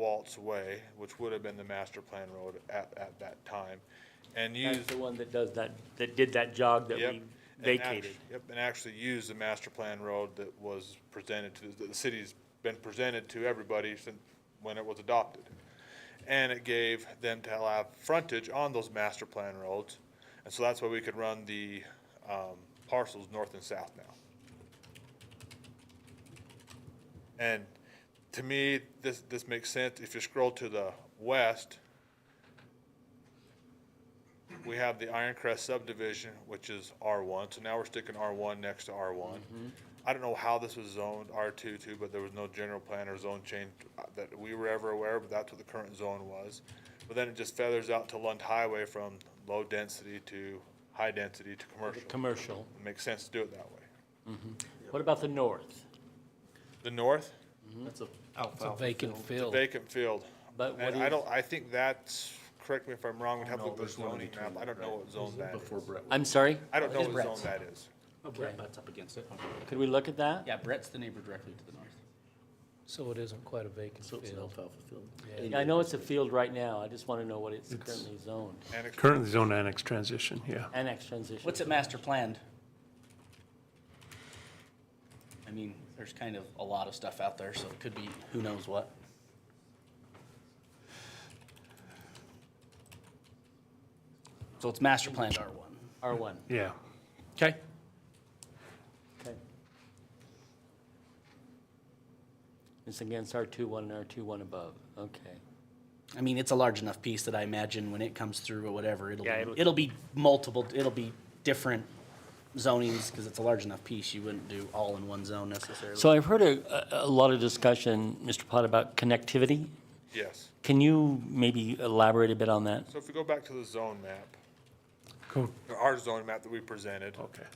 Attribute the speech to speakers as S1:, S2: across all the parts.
S1: else way, which would have been the master plan road at, at that time, and use.
S2: That's the one that does that, that did that jog that
S1: Yep,
S2: we
S1: and act-
S2: vacated.
S1: Yep, and actually use the master plan road that was presented to, that the city's been presented to everybody since when it was adopted. And it gave them to allow frontage on those master plan roads, and so that's why we could run the, um, parcels north and south now. And to me, this, this makes sense, if you scroll to the west, we have the Iron Crest subdivision, which is R1, so now we're sticking R1 next to R1.
S2: Mm-hmm.
S1: I don't know how this was zoned R2 too, but there was no general plan or zone change uh, that we were ever aware of, but that's what the current zone was. But then it just feathers out to Lund Highway from low density to high density to commercial.
S2: Commercial.
S1: It Makes sense to do it that way.
S2: What about the north?
S1: The north,
S3: That's a
S4: It's a
S3: alfalfa
S4: vacant
S3: field.
S4: field.
S1: vacant field.
S2: But Oh. what
S1: And I
S2: is-
S1: don't, I think that's, correct me if I'm wrong, we'd have to
S3: No,
S1: look at the
S3: there's one in
S1: zoning map,
S3: between,
S1: I don't know
S3: right?
S1: what zone that
S3: Before
S1: is.
S3: Brett.
S2: I'm sorry?
S1: I don't know
S4: It's
S1: what zone
S4: Brett's.
S1: that is.
S2: Okay.
S3: Oh, Brett butts up against it.
S2: Could we look at that?
S3: Yeah, Brett's the neighbor directly to the north.
S4: So it isn't quite a vacant
S3: So it's an
S4: field.
S3: alfalfa field.
S4: Yeah.
S2: Yeah, I know it's a field right now. I just want to know what it's currently zoned.
S1: And it-
S5: Currently zoned annex transition, yeah.
S2: Annex transition.
S3: What's it master planned? I mean, there's kind of a lot of stuff out there, so it could be who knows what. So it's master planned R1.
S2: R1.
S5: Yeah.
S3: Okay.
S2: Okay. It's against R21 and R21 above. Okay.
S3: I mean, it's a large enough piece that I imagine when it comes through or whatever, it'll,
S2: Yeah,
S3: be-
S2: it'll-
S3: it'll be multiple, it'll be different zonings, because it's a large enough piece, you wouldn't do all in one zone necessarily.
S2: So I've heard a, a a lot of discussion, Mr. Pot, about connectivity.
S1: Yes.
S2: Can you maybe elaborate a bit on that?
S1: So if we go back to the zone map,
S5: Cool.
S1: or our zone map that we presented,
S2: Oh.
S5: Okay.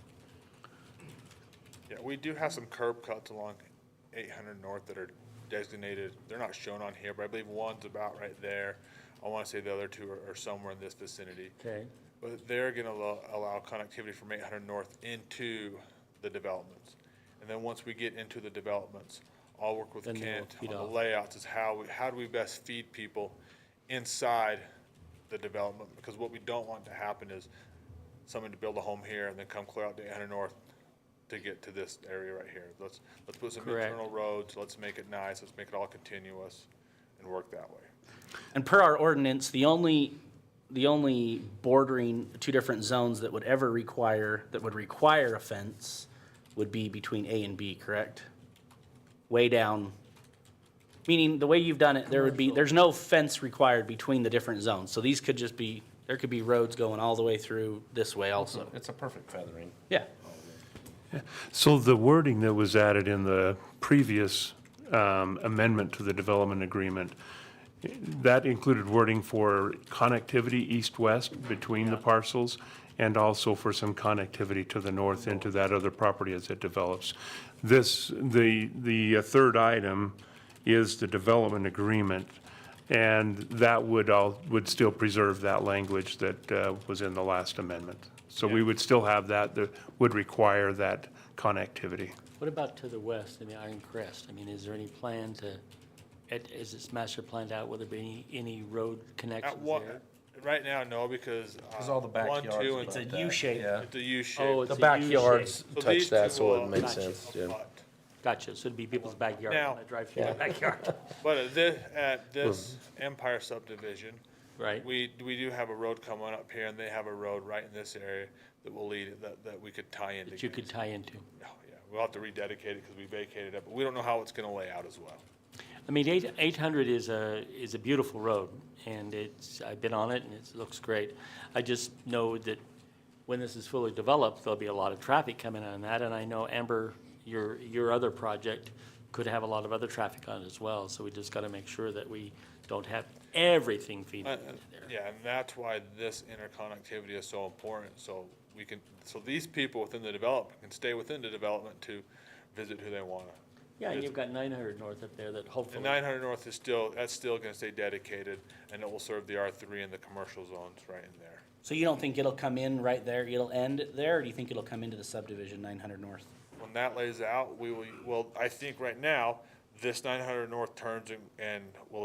S1: yeah, we do have some curb cuts along eight hundred north that are designated, they're not shown on here, but I believe one's about right there. I wanna say the other two are, are somewhere in this vicinity.
S2: Okay.
S1: But they're gonna allow, allow connectivity from eight hundred north into the developments. And then once we get into the developments, I'll work with
S2: Then they'll
S1: Kent on
S2: feed
S1: the
S2: off.
S1: layouts is how, we how do we best feed people inside the development? Because what we don't want to happen is someone to build a home here and then come clear out to eight hundred north to get to this area right here. Let's, let's put some
S2: Correct.
S1: internal roads, let's make it nice, let's make it all continuous and work that way.
S3: And per our ordinance, the only, the only bordering two different zones that would ever require, that would require a fence would be between A and B, correct? Way down, meaning the way you've done it, there would be, there's no fence required between the different zones. So these could just be, there could be roads going all the way through this way also.
S6: It's a perfect feathering.
S3: Yeah,
S5: So the wording that was added in the previous um, amendment to the development agreement, that included wording for connectivity east-west between the parcels and also for some connectivity to the north into that other property as it develops. This, the, the uh, third item is the development agreement. And that would all, would still preserve that language that uh, was in the last amendment. So we would still have that, that would require that connectivity.
S2: What about to the west in the Iron Crest? I mean, is there any plan to, it- is this master planned out, whether there be any, any road
S1: At
S2: connections
S1: one,
S2: there?
S1: right now, no, because. uh,
S6: Because all the backyards.
S1: One, two,
S6: are
S1: and
S3: It's a
S6: like that,
S3: U shape.
S6: yeah.
S1: It's a U shape.
S2: Oh, it's
S6: The
S2: a U-shape.
S6: backyards
S1: So
S6: touch
S1: these
S6: that,
S1: two
S6: so
S1: will
S6: it makes
S2: Gotcha.
S6: sense, yeah.
S1: abut.
S2: Gotcha, so it'd be people's backyard,
S1: Now-
S2: when I drive through their backyard,
S1: But at this, at this Empire subdivision,
S2: right?
S1: we, we do have a road coming up here, and they have a road right in this area that will lead, that, that we could tie into.
S2: That you could
S1: Gaines.
S2: tie into.
S1: Oh, yeah. We'll have to rededicate it because we vacated it, but we don't know how it's gonna lay out as well.
S2: I mean, eight, eight hundred is a, is a beautiful road, and it's, I've been on it, and it looks great. I just know that when this is fully developed, there'll be a lot of traffic coming on that, and I know Amber, your, your other project could have a lot of other traffic on it as well, so we just gotta make sure that we don't have everything feeding
S1: Uh,
S2: into there.
S1: Yeah, and that's why this interconnectivity is so important, so we can, so these people within the development can stay within the development to visit who they wanna.
S2: Yeah, and you've got nine hundred north up there that
S1: The
S2: hopefully,
S1: nine hundred north is still, that's still gonna stay dedicated, and it will serve the R three and the commercial zones right in there.
S3: so you don't think it'll come in right there, it'll end there, or do you think it'll come into the subdivision nine hundred north?
S1: When that lays out, we will, well, I think right now, this nine hundred north turns and, and will